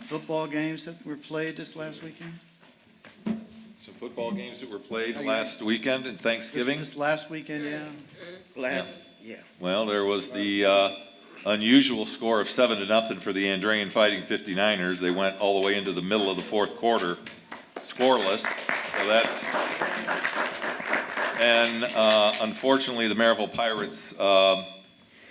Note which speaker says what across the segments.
Speaker 1: football games that were played this last weekend?
Speaker 2: Some football games that were played last weekend and Thanksgiving.
Speaker 1: This last weekend, yeah.
Speaker 3: Last, yeah.
Speaker 2: Well, there was the uh, unusual score of seven to nothing for the Andrean Fighting 59ers. They went all the way into the middle of the fourth quarter, scoreless. So that's and uh, unfortunately, the Maryville Pirates um,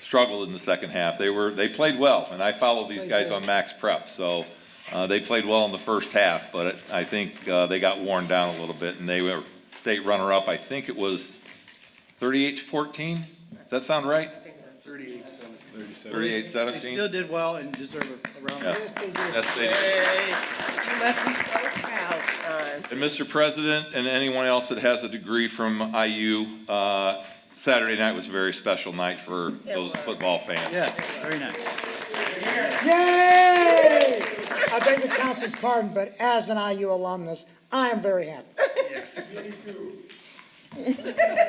Speaker 2: struggled in the second half. They were they played well, and I follow these guys on Max Prep, so uh, they played well in the first half. But it, I think uh, they got worn down a little bit, and they were state runner up. I think it was 38 to 14. Does that sound right? 38
Speaker 1: They
Speaker 2: 17.
Speaker 1: still did well and deserve a round of
Speaker 2: Yes. Yes, they did.
Speaker 3: You must be so proud, John.
Speaker 2: And Mr. President, and anyone else that has a degree from IU, uh, Saturday night was a very special night for those football fans.
Speaker 1: Yes, very nice.
Speaker 4: Yay! I beg the council's pardon, but as an IU alumnus, I am very happy.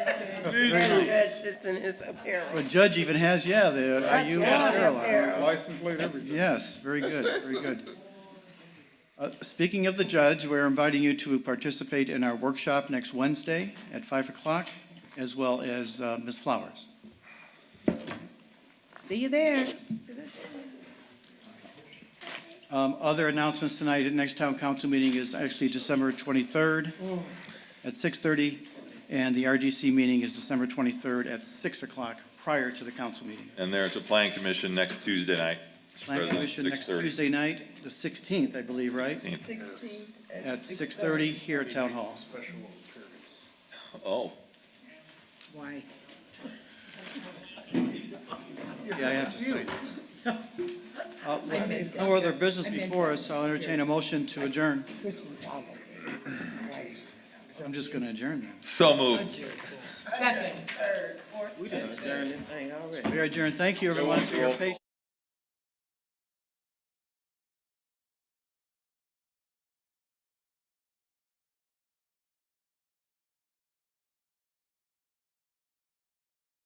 Speaker 3: Judge sits in his apparel.
Speaker 1: Well, Judge even has, yeah, the IU
Speaker 3: right.
Speaker 1: apparel on.
Speaker 3: Apparel.
Speaker 5: License plate, everything.
Speaker 1: Yes, very good, very good. Uh, Speaking of the judge, we're inviting you to participate in our workshop next Wednesday at 5 o'clock, as well as uh, Ms. Flowers.
Speaker 3: See you there.
Speaker 1: Um, Other announcements tonight, the next town council meeting is actually December 23rd at 6:30, and the RDC meeting is December 23rd at 6 o'clock, prior to the council meeting.
Speaker 2: And there's a planning commission next Tuesday night. Mr.
Speaker 1: Plan
Speaker 2: President,
Speaker 1: Commission next
Speaker 2: 6:30.
Speaker 1: Tuesday night, the 16th, I believe, right?
Speaker 2: 16th.
Speaker 1: At 6:30 here at Town Hall.
Speaker 2: Oh,
Speaker 3: Why?
Speaker 1: Yeah, I have to say this. Uh, with No other business before us, I'll entertain a motion to adjourn. I'm just going to adjourn then.
Speaker 2: so moved.
Speaker 3: Third, fourth. We didn't. I already.
Speaker 1: We are adjourned. Thank you, everyone, for your patience.